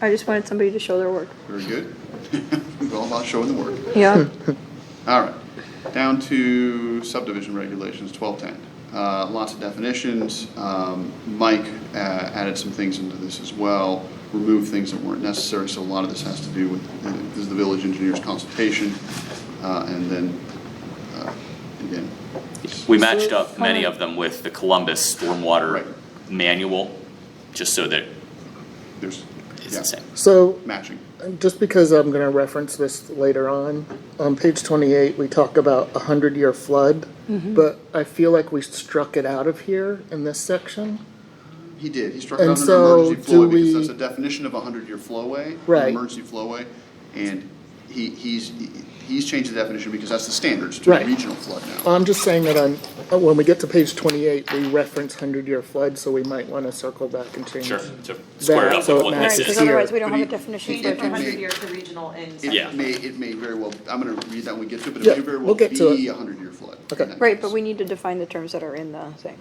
I just wanted somebody to show their work. Very good. It's all about showing the work. Yeah. All right, down to subdivision regulations, twelve ten. Uh, lots of definitions. Um, Mike uh, added some things into this as well, removed things that weren't necessary, so a lot of this has to do with, this is the village engineer's consultation. Uh, and then, uh, again, We matched up many of them with the Columbus Stormwater Manual, just so that there's, it's the yeah, same. So, matching. just because I'm going to reference this later on, on page 28, we talk about a 100 year flood, but I feel like we struck it out of here in this section. He did, he struck out an And so emergency do flowway because we- that's a definition of a hundred-year flowway. an Right. Emergency flowway, and he, he's, he- he's changed the definition because that's the standards to Right. regional flood now. I'm just saying that on, when we get to page 28, we reference 100 year flood, so we might want to circle back and change. Sure, to square it up so with it what All right, this matches. because is. otherwise we don't But have a he- definition. he- for it From it. may- hundred year to regional and. Yeah. It may, it may very well, I'm gonna read that when we get to it, but Yeah, it may very well we'll get to be it. a hundred-year flood. in Okay. that Right, case. but we need to define the terms that are in the thing.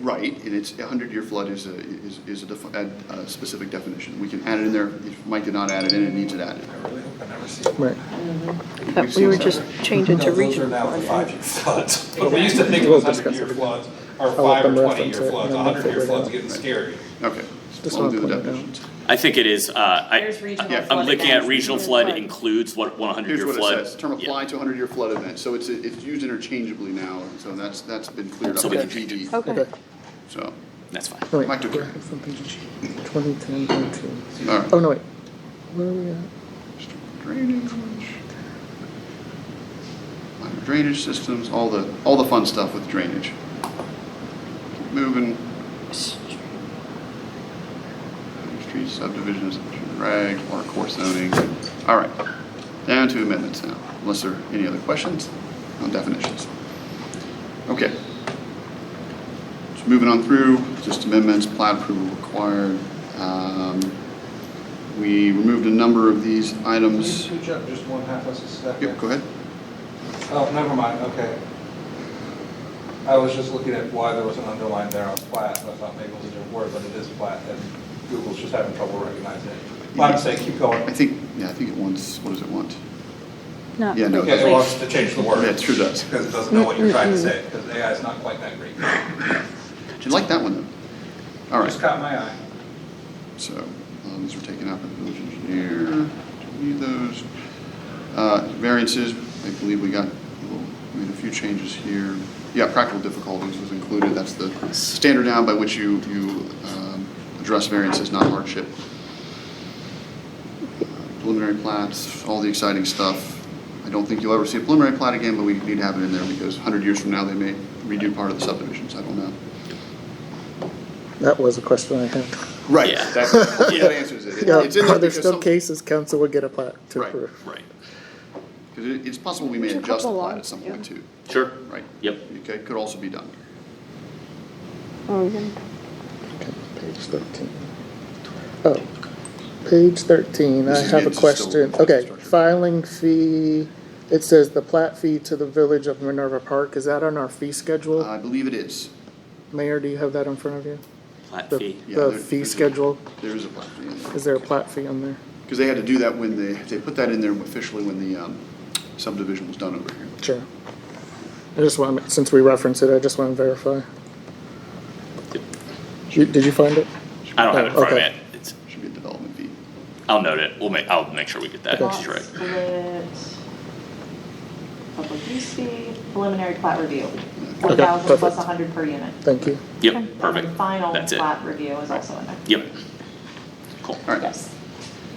Right, and it's, a hundred-year flood is a, is, is a defi- a, a specific definition. We can add it in there. If Mike did not add it in, it needs it added. Right. That we would just change it to No, those are regional. now the five-year floods. But we used to think it We'll was discuss hundred-year it. floods, or I'll let five or them reference twenty-year it, floods, and a then we'll hundred-year figure it floods out. getting scary. Okay. Just Well, wanna do the point it out. definitions. I think it is, uh, I, There's regional yeah, I'm flood I'm looking at events. regional flood includes what, one hundred Here's year what it flood. says, term Yeah. apply to a hundred-year flood event, so it's, it's used interchangeably now, and so that's, that's been cleared up. So we in can change GD. Okay. Okay. So, That's fine. No, Oh, wait. Mike took care. 2010, 19. all Oh, right. no, wait. Where are we at? Drainage. minor Drainage systems, all the, all the fun stuff with drainage. Keep Moving, street subdivisions, reg, water course zoning, all right. Down to amendments now, unless there are any other questions on definitions. Okay. So moving on through, just amendments, plat approval required. Um, We removed a number of these items. Can you jump just one half a second? Yep, go ahead. Oh, never mind, okay. I was just looking at why there was an underline there on plat, and I thought maybe it was a different word, but it is plat, and Google's just having trouble recognizing it. My mistake, keep I going. think, yeah, I think it wants, what does it want? Not Yeah, no, Yeah, it that's- wants to change the word. Yeah, it sure does. Because it doesn't know what you're trying to say, because AI is not quite that great. did you like that one though? All right, Just caught my eye. so um, these were taken out by the village engineer. Do we Need those. Uh, Variances, I believe we got, we made a few changes here. Yeah, practical difficulties was included, that's the standard now by which you, you um, address variances, not hardship. preliminary plats, all the exciting stuff. I don't think you'll ever see a preliminary plat again, but we need to have it in there because 100 years from now, they may redo part of the subdivisions, I don't know. That was a question I had. Right, Yeah. that, that answers it. It- Yeah, It's in are there there because still some, because cases council would get a plat to Right. approve? Right. it- it's possible we may There's a adjust the couple plat at lots, some yeah. point too, Sure. right? Yep. Okay, could also be done. Oh, yeah. Okay, page thirteen. Oh, page thirteen, I This is have a against the still- question. Okay, structure. filing fee, it says the plat fee to the village of Minerva Park, is that on our fee schedule? I believe it is. Mayor, do you have that in front of you? Plat The- fee. Yeah, The there- fee there's a- schedule, There is a plat fee in there. is there a plat fee on there? Because they had to do that when they, they put that in there officially when the um, subdivision was done over here. Sure. I just want, since we reference it, I just want to verify. You- Did you find it? I don't have it in front of me. Okay. It's- Should be a development fee. I'll note it. We'll make, I'll make sure we get that Okay. straight. Split, Public use fee, preliminary plat review, Okay, one thousand plus perfect. a hundred per unit. Thank you. Yep, And perfect. the Final That's it. plat review is also in there. Yep. Cool. All right, Yes.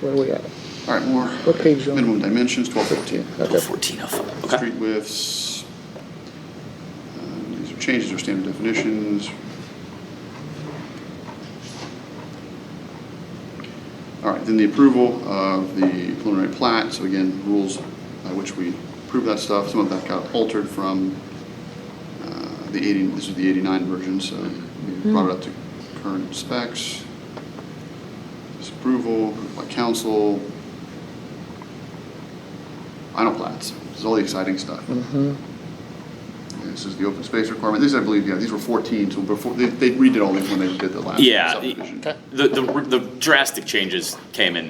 Where are we at? all right, more. What page you on? Minimum dimensions, twelve fourteen. Okay. Fourteen oh five. Okay. Street widths. Um, These are changes or standard definitions. All right, then the approval of the preliminary plat, so again, rules by which we approve that stuff, some of that got altered from uh, the 80, this is the 89 version, so we brought it up to current specs. Disapproval approved by council. Final plats, this is all the exciting stuff. This is the open space requirement, these I believe, yeah, these were 14, so before, they- they redid all these when they did the last Yeah. subdivision. The, the, the drastic changes came in